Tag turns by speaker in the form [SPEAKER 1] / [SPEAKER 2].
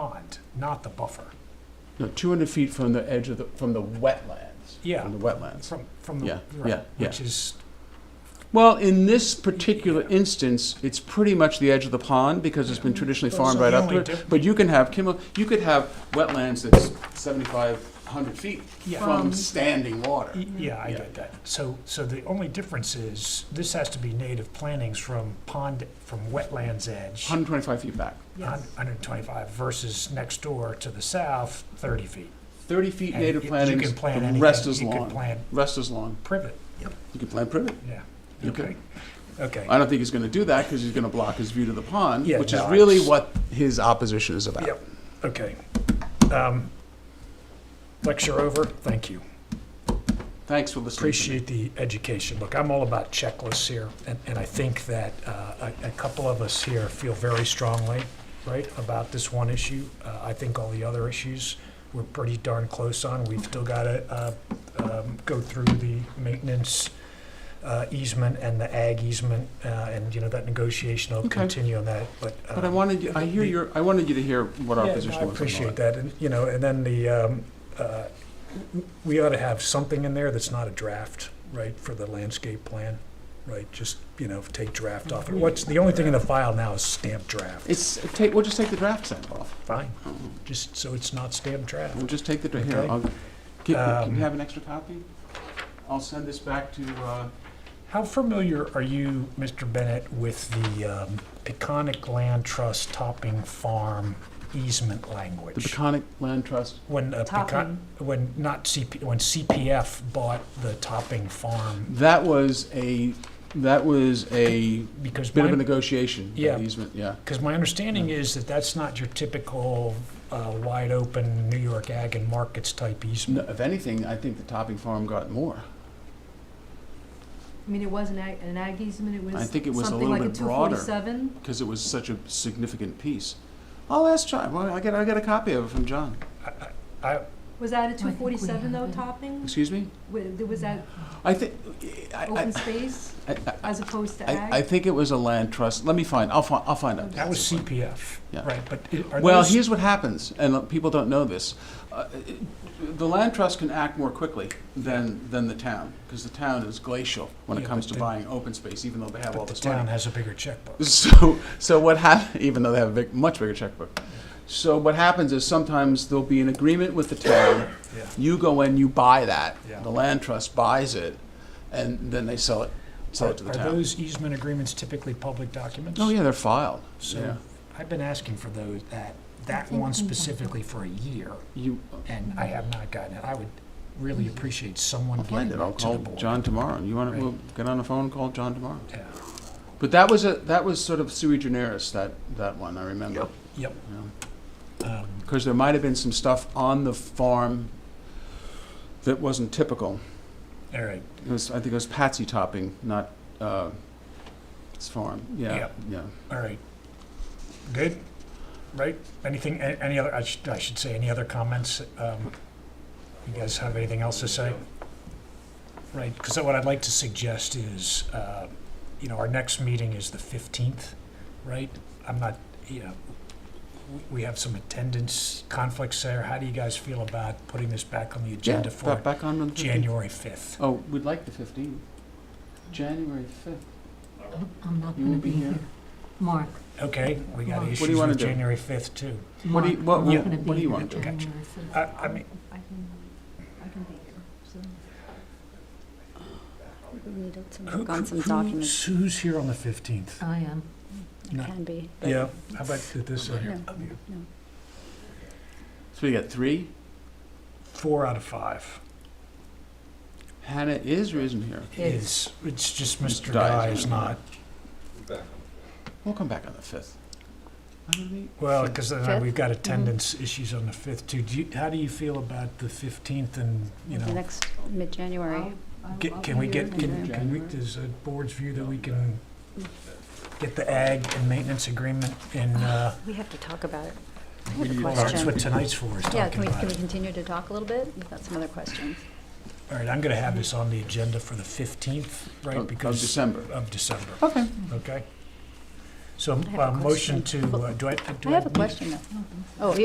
[SPEAKER 1] pond, not the buffer.
[SPEAKER 2] No, 200 feet from the edge of the, from the wetlands.
[SPEAKER 1] Yeah.
[SPEAKER 2] From the wetlands.
[SPEAKER 1] From, from the,
[SPEAKER 2] Yeah,
[SPEAKER 1] right,
[SPEAKER 2] yeah, yeah.
[SPEAKER 1] which is,
[SPEAKER 2] Well, in this particular instance, it's pretty much the edge of the pond because it's been traditionally
[SPEAKER 1] Those
[SPEAKER 2] farmed
[SPEAKER 1] are
[SPEAKER 2] right
[SPEAKER 1] the
[SPEAKER 2] up to
[SPEAKER 1] only
[SPEAKER 2] it.
[SPEAKER 1] diff-
[SPEAKER 2] But you can have, Kimmel, you could have wetlands that's 7,500 feet
[SPEAKER 1] Yeah.
[SPEAKER 2] from
[SPEAKER 3] From-
[SPEAKER 2] standing water.
[SPEAKER 1] y- e, yeah, I
[SPEAKER 2] Yeah.
[SPEAKER 1] get that. So, so the only difference is, this has to be native plantings from pond, from wetlands edge,
[SPEAKER 2] 125 feet back.
[SPEAKER 3] Yes.
[SPEAKER 1] 125 versus next door to the south, 30 feet.
[SPEAKER 2] 30 feet
[SPEAKER 1] And
[SPEAKER 2] native
[SPEAKER 1] you- you
[SPEAKER 2] plantings,
[SPEAKER 1] can plant
[SPEAKER 2] the
[SPEAKER 1] anything.
[SPEAKER 2] rest is
[SPEAKER 1] You could
[SPEAKER 2] lawn.
[SPEAKER 1] plant
[SPEAKER 2] Rest is lawn.
[SPEAKER 1] privet,
[SPEAKER 2] You can plant privet.
[SPEAKER 1] yeah.
[SPEAKER 2] You could.
[SPEAKER 1] Okay,
[SPEAKER 2] I don't think he's going to do that because he's going to block his view to the pond,
[SPEAKER 1] Yeah,
[SPEAKER 2] which is
[SPEAKER 1] no,
[SPEAKER 2] really
[SPEAKER 1] it's-
[SPEAKER 2] what his opposition is about.
[SPEAKER 1] Yep. okay. Um, Lecture over, thank you.
[SPEAKER 2] Thanks for listening. to me.
[SPEAKER 1] appreciate the education. Look, I'm all about checklists here, and, and I think that uh, a, a couple of us here feel very strongly, right, about this one issue. Uh, I think all the other issues we're pretty darn close on. We've still got to uh, um, go through the maintenance uh, easement and the ag easement, uh, and you know that negotiation. I'll
[SPEAKER 2] Okay.
[SPEAKER 1] continue on that, but.
[SPEAKER 2] But I
[SPEAKER 1] um,
[SPEAKER 2] wanted, you- I hear
[SPEAKER 1] the-
[SPEAKER 2] your, I wanted you to hear what our
[SPEAKER 1] yeah, no,
[SPEAKER 2] position was.
[SPEAKER 1] I
[SPEAKER 2] on all
[SPEAKER 1] appreciate
[SPEAKER 2] that.
[SPEAKER 1] that, and, you know, and then the, um, uh, w- we ought to have something in there that's not a draft, right, for the landscape plan, right, just, you know, take draft off. What's, the only thing in the file now is stamped draft.
[SPEAKER 2] It's, take, we'll just take the draft set off.
[SPEAKER 1] Fine, just so it's not stamped draft.
[SPEAKER 2] We'll just take the, dra- here,
[SPEAKER 1] Okay.
[SPEAKER 2] I'll, can, can
[SPEAKER 1] Um,
[SPEAKER 2] you have an extra copy? I'll send this back to, uh,
[SPEAKER 1] How familiar are you, Mr. Bennett, with the um, Peconic Land Trust topping farm easement
[SPEAKER 2] the
[SPEAKER 1] language?
[SPEAKER 2] Peconic Land Trust.
[SPEAKER 1] When, uh, Pecon,
[SPEAKER 3] Topping.
[SPEAKER 1] when not CP, when CPF bought the topping farm,
[SPEAKER 2] That was a, that was a
[SPEAKER 1] because
[SPEAKER 2] bit of
[SPEAKER 1] my
[SPEAKER 2] a negotiation,
[SPEAKER 1] Yeah.
[SPEAKER 2] that easement, yeah.
[SPEAKER 1] Because my understanding is that that's not your typical uh, wide open New York ag and markets type
[SPEAKER 2] No,
[SPEAKER 1] easement.
[SPEAKER 2] If anything, I think the Topping Farm got more.
[SPEAKER 3] I mean, it was an ag, an ag easement, it was
[SPEAKER 2] I think it was a
[SPEAKER 3] something
[SPEAKER 2] little
[SPEAKER 3] like a
[SPEAKER 2] bit
[SPEAKER 3] two
[SPEAKER 2] broader.
[SPEAKER 3] forty-seven.
[SPEAKER 2] because it was such a significant piece. I'll ask John. Well, I get I get a copy of it from John.
[SPEAKER 3] Was that a two
[SPEAKER 4] think we
[SPEAKER 3] forty-seven though,
[SPEAKER 4] have it.
[SPEAKER 3] topping?
[SPEAKER 2] Excuse me.
[SPEAKER 3] Wa- Was that
[SPEAKER 2] I think I,
[SPEAKER 3] open space
[SPEAKER 2] I, I, I,
[SPEAKER 3] as opposed to
[SPEAKER 2] I, I
[SPEAKER 3] ag?
[SPEAKER 2] think it was a land trust. Let me find. I'll find. I'll find out.
[SPEAKER 1] That was CPF,
[SPEAKER 2] Yeah.
[SPEAKER 1] right, but i- are
[SPEAKER 2] Well,
[SPEAKER 1] those,
[SPEAKER 2] here's what happens, and people don't know this. Uh, The land trust can act more quickly than, than the town, because the town is glacial when it
[SPEAKER 1] Yeah,
[SPEAKER 2] comes
[SPEAKER 1] but
[SPEAKER 2] to
[SPEAKER 1] the-
[SPEAKER 2] buying open space, even though they have
[SPEAKER 1] but
[SPEAKER 2] all
[SPEAKER 1] the
[SPEAKER 2] this
[SPEAKER 1] town
[SPEAKER 2] money.
[SPEAKER 1] has a bigger checkbook.
[SPEAKER 2] So, so what hap, even though they have a big, much bigger checkbook. So what happens is sometimes there'll be an agreement with the town,
[SPEAKER 1] Yeah.
[SPEAKER 2] you go in, you buy that,
[SPEAKER 1] Yeah.
[SPEAKER 2] the land trust buys it, and then they sell it, sell
[SPEAKER 1] Are
[SPEAKER 2] it to the town.
[SPEAKER 1] those easement agreements typically public documents?
[SPEAKER 2] Oh, yeah, they're filed, yeah.
[SPEAKER 1] So I've been asking for those, that,
[SPEAKER 4] I
[SPEAKER 1] that
[SPEAKER 4] think
[SPEAKER 1] one
[SPEAKER 4] we have
[SPEAKER 1] specifically for a year,
[SPEAKER 2] You,
[SPEAKER 1] and I have not gotten it. I would really
[SPEAKER 4] Mm-hmm.
[SPEAKER 1] appreciate someone
[SPEAKER 2] Mm-hmm. I'll
[SPEAKER 1] getting
[SPEAKER 2] find it, I'll
[SPEAKER 1] that to the
[SPEAKER 2] call
[SPEAKER 1] board.
[SPEAKER 2] John tomorrow, you wanna,
[SPEAKER 1] Right.
[SPEAKER 2] we'll get on the phone, and call John tomorrow.
[SPEAKER 1] Yeah.
[SPEAKER 2] But that was a, that was sort of sui generis, that, that one, I remember.
[SPEAKER 1] Yep. Um,
[SPEAKER 2] Because there might have been some stuff on the farm that wasn't typical.
[SPEAKER 1] All right,
[SPEAKER 2] It was, I think it was Patsy topping, not, uh, it's farm, yeah,
[SPEAKER 1] Yep.
[SPEAKER 2] yeah.
[SPEAKER 1] All right. Good? Right? Anything, a- any other, I should, I should say, any other comments? Um, You guys have anything else to say? Right, because what I'd like to suggest is, uh, you know, our next meeting is the 15th, right? I'm not, you know, w- we have some attendance conflicts there. How do you guys feel about putting this back on the agenda
[SPEAKER 2] Yeah,
[SPEAKER 1] for
[SPEAKER 2] back- Back on the fifteenth.
[SPEAKER 1] January 5th?
[SPEAKER 2] Oh, we'd like the fifteenth. January fifth.
[SPEAKER 4] I'm- I'm not
[SPEAKER 2] You
[SPEAKER 4] gonna
[SPEAKER 2] won't be
[SPEAKER 4] be
[SPEAKER 2] here?
[SPEAKER 4] here. Mark,
[SPEAKER 1] Okay, we got
[SPEAKER 4] What do you
[SPEAKER 1] issues
[SPEAKER 2] wanna
[SPEAKER 1] with
[SPEAKER 2] do?
[SPEAKER 1] January 5th, too.
[SPEAKER 2] What do you- what-
[SPEAKER 4] Mark, I'm
[SPEAKER 2] what-
[SPEAKER 4] not gonna
[SPEAKER 2] what do
[SPEAKER 4] be
[SPEAKER 2] you
[SPEAKER 4] here
[SPEAKER 2] want Uh, to do?
[SPEAKER 4] January
[SPEAKER 1] I,
[SPEAKER 4] fifth.
[SPEAKER 1] I mean,
[SPEAKER 3] I can, I can be here, so.
[SPEAKER 5] We need to
[SPEAKER 1] Who-
[SPEAKER 5] work on some
[SPEAKER 1] who-
[SPEAKER 5] documents.
[SPEAKER 1] Who's here on the 15th?
[SPEAKER 4] I am.
[SPEAKER 1] No.
[SPEAKER 5] Can be. but-
[SPEAKER 1] Yeah, how about th- this one here?
[SPEAKER 5] No.
[SPEAKER 2] So we got three.
[SPEAKER 1] Four out of five
[SPEAKER 2] Hannah is or isn't here.
[SPEAKER 1] is, it's just
[SPEAKER 2] Mr.
[SPEAKER 1] Mr.
[SPEAKER 2] Guy
[SPEAKER 1] Guy
[SPEAKER 2] is
[SPEAKER 1] is not,
[SPEAKER 2] We'll come back on the fifth.
[SPEAKER 1] well, because then
[SPEAKER 5] Fifth? Mm-hmm.
[SPEAKER 1] we've got attendance issues on the 5th too. Do you, how do you feel about the 15th and, you
[SPEAKER 5] The
[SPEAKER 1] know,
[SPEAKER 5] next, mid-January.
[SPEAKER 1] get- can we get, can
[SPEAKER 5] in
[SPEAKER 1] can we,
[SPEAKER 4] January.
[SPEAKER 1] does the board's view that we can get the ag and maintenance agreement in, uh,
[SPEAKER 5] We have to talk about it. I
[SPEAKER 1] well,
[SPEAKER 5] have a
[SPEAKER 1] that's
[SPEAKER 5] question.
[SPEAKER 1] what tonight's for, is
[SPEAKER 5] Yeah,
[SPEAKER 1] talking
[SPEAKER 5] can we,
[SPEAKER 1] about
[SPEAKER 5] can we
[SPEAKER 1] it.
[SPEAKER 5] continue to talk a little bit? We've got some other questions.
[SPEAKER 1] All right, I'm going to have this on the agenda for the 15th, right,
[SPEAKER 2] Of of
[SPEAKER 1] because
[SPEAKER 2] December.
[SPEAKER 1] of December.
[SPEAKER 2] Okay.
[SPEAKER 1] Okay. So,
[SPEAKER 5] have a
[SPEAKER 1] uh, motion
[SPEAKER 5] question.
[SPEAKER 1] to, uh, do I, do I?
[SPEAKER 5] I have a
[SPEAKER 1] need-
[SPEAKER 5] question though. Oh, you-